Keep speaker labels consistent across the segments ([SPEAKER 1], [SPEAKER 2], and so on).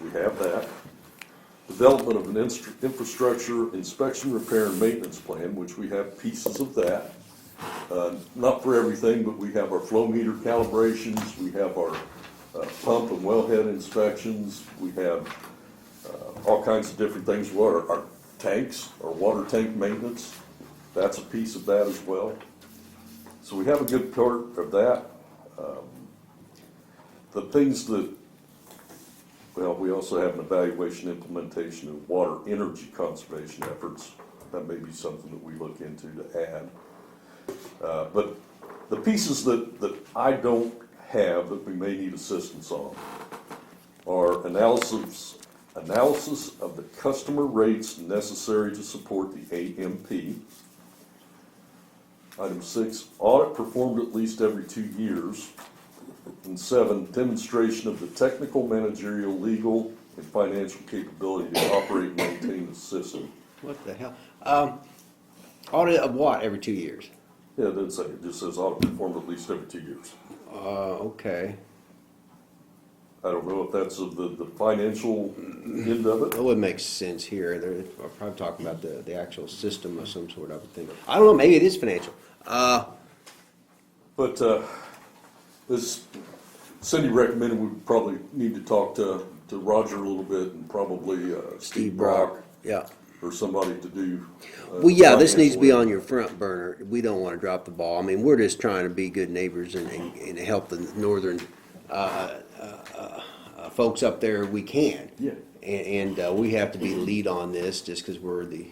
[SPEAKER 1] We have that. Development of an instru- infrastructure inspection, repair, and maintenance plan, which we have pieces of that. Uh, Not for everything, but we have our flow meter calibrations, we have our uh, pump and wellhead inspections, we have uh, all kinds of different things, water, our tanks, our water tank maintenance, that's a piece of that as well. So we have a good part of that. Um, The things that well, we also have an evaluation, implementation of water energy conservation efforts. That may be something that we look into to add. Uh, But the pieces that, that I don't have that we may need assistance on are analysis, analysis of the customer rates necessary to support the AMP. Item six, audit performed at least every two years. And seven, demonstration of the technical, managerial, legal, and financial capability to operate and maintain the system.
[SPEAKER 2] What the hell? Um, audit of what every two years?
[SPEAKER 1] Yeah, it doesn't say, it just says ought to perform at least every two years.
[SPEAKER 2] Uh, okay.
[SPEAKER 1] I don't know if that's of the, the financial end of it.
[SPEAKER 2] That would make sense here. They're I'll probably talking about the, the actual system of some sort, I would think. I don't know, maybe it is financial. Uh,
[SPEAKER 1] But, uh, as Cindy recommended, we probably need to talk to, to Roger a little bit and probably, uh, Steve Brock
[SPEAKER 2] Yeah.
[SPEAKER 1] or somebody to do. uh,
[SPEAKER 2] Well, yeah, this needs to be
[SPEAKER 1] financial-
[SPEAKER 2] on your front burner. We don't want to drop the ball. I mean, we're just trying to be good neighbors and, and, and help the northern, uh, uh, uh, uh, folks up there we can.
[SPEAKER 1] Yeah.
[SPEAKER 2] And, and, uh, we have to be lead on this just because we're the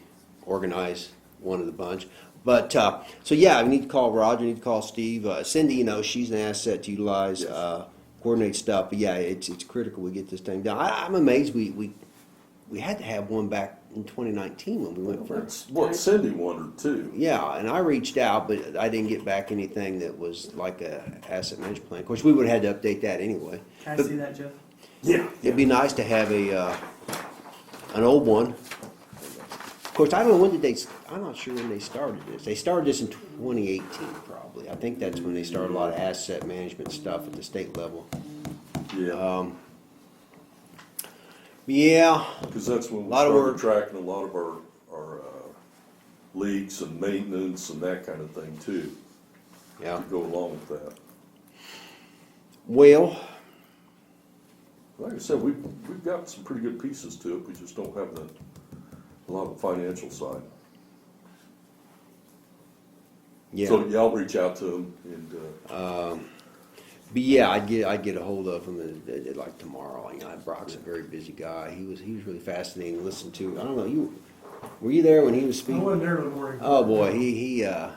[SPEAKER 2] organized one of the bunch. But, uh, so yeah, we need to call Roger, we need to call Steve. Uh, Cindy, you know, she's an asset to utilize, uh, coordinate stuff. But yeah, it's, it's critical we get this thing done. I, I'm amazed we, we, we had to have one back in twenty nineteen when we went for.
[SPEAKER 1] That's what Cindy wondered too.
[SPEAKER 2] Yeah, and I reached out, but I didn't get back anything that was like a asset management plan. Of course, we would have had to update that anyway.
[SPEAKER 3] Can I see that, Jeff?
[SPEAKER 1] Yeah.
[SPEAKER 2] It'd be nice to have a, uh, an old one. Of course, I don't know when did they, s- I'm not sure when they started this. They started this in twenty eighteen probably. I think that's when they started a lot of asset management stuff at the state level.
[SPEAKER 1] Yeah,
[SPEAKER 2] Um, Yeah,
[SPEAKER 1] because that's when we
[SPEAKER 2] Lot of
[SPEAKER 1] started
[SPEAKER 2] work.
[SPEAKER 1] tracking a lot of our, our uh, leaks and maintenance and that kind of thing too,
[SPEAKER 2] yeah.
[SPEAKER 1] to go along with that.
[SPEAKER 2] Well,
[SPEAKER 1] Like I said, we've, we've got some pretty good pieces to it, we just don't have the, a lot of financial side. So,
[SPEAKER 2] yeah,
[SPEAKER 1] yeah, I'll reach out to them and, uh,
[SPEAKER 2] but yeah, I'd get, I'd get ahold of him uh, uh, like tomorrow. You know, Brock's a very busy guy. He was, he was really fascinating to listen to. I don't know, you, were you there when he was
[SPEAKER 3] I
[SPEAKER 2] speaking?
[SPEAKER 3] wasn't there in the morning.
[SPEAKER 2] Oh boy, he he uh,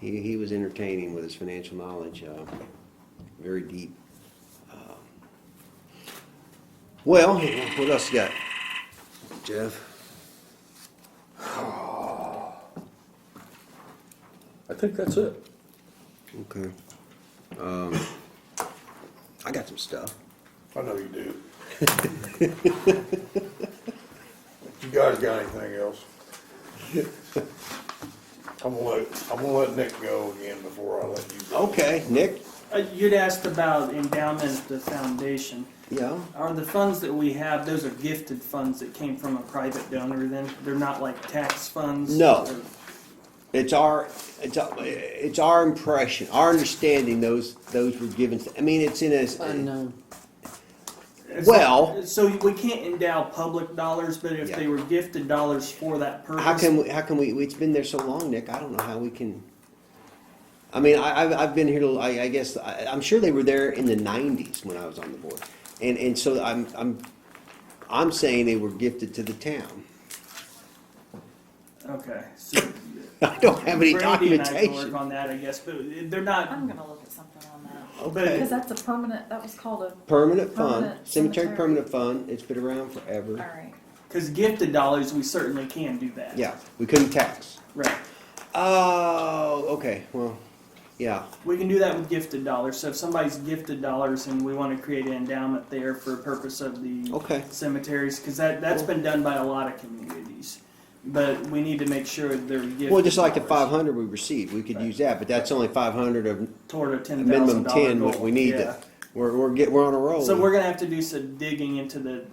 [SPEAKER 2] he he was entertaining with his financial knowledge, uh, very deep. Um, Well, what else you got, Jeff?
[SPEAKER 1] I think that's it.
[SPEAKER 2] Okay. Um, I got some stuff.
[SPEAKER 4] I know you do. You guys got anything else? I'm gonna let, I'm gonna let Nick go again before I let you go.
[SPEAKER 2] Okay, Nick.
[SPEAKER 3] Uh, You'd asked about endowment of the foundation.
[SPEAKER 2] Yeah.
[SPEAKER 3] Are the funds that we have, those are gifted funds that came from a private donor then? They're not like tax funds?
[SPEAKER 2] No.
[SPEAKER 3] Or-
[SPEAKER 2] It's our, it's, our- it's our impression, our understanding those, those were given, I mean, it's in a. Unknown.
[SPEAKER 3] It's-
[SPEAKER 2] Well-
[SPEAKER 3] So we can't endow public dollars, but if
[SPEAKER 2] Yeah.
[SPEAKER 3] they were gifted dollars for that purpose?
[SPEAKER 2] How can we, how can we, it's been there so long, Nick, I don't know how we can, I mean, I, I've, I've been here, till, I, I guess, I, I'm sure they were there in the nineties when I was on the board. And, and so I'm, I'm, I'm saying they were gifted to the town.
[SPEAKER 3] Okay, so.
[SPEAKER 2] I don't have any
[SPEAKER 3] Brandy and I can work
[SPEAKER 2] documentation.
[SPEAKER 3] on that, I guess, but they're not,
[SPEAKER 5] I'm gonna look at something on that,
[SPEAKER 2] Okay.
[SPEAKER 5] because that's a permanent, that was called a,
[SPEAKER 2] Permanent fund,
[SPEAKER 5] Permanent
[SPEAKER 2] cemetery
[SPEAKER 5] cemetery.
[SPEAKER 2] permanent fund, it's been around forever,
[SPEAKER 5] alright.
[SPEAKER 3] because gifted dollars, we certainly can do that.
[SPEAKER 2] yeah, we couldn't tax.
[SPEAKER 3] Right.
[SPEAKER 2] Oh, okay, well, yeah,
[SPEAKER 3] We can do that with gifted dollars. So if somebody's gifted dollars and we want to create an endowment there for a purpose of the
[SPEAKER 2] Okay.
[SPEAKER 3] cemeteries, because that, that's been done by a lot of communities. But we need to make sure they're gifted.
[SPEAKER 2] well, just like the
[SPEAKER 3] dollars
[SPEAKER 2] five hundred we received, we could use that, but that's only five hundred of
[SPEAKER 3] Toward a ten thousand
[SPEAKER 2] minimum
[SPEAKER 3] dollar
[SPEAKER 2] ten,
[SPEAKER 3] goal.
[SPEAKER 2] what we need Oh.
[SPEAKER 3] Yeah.
[SPEAKER 2] to, we're, we're get, we're on a roll.
[SPEAKER 3] So we're gonna have to do some digging into the,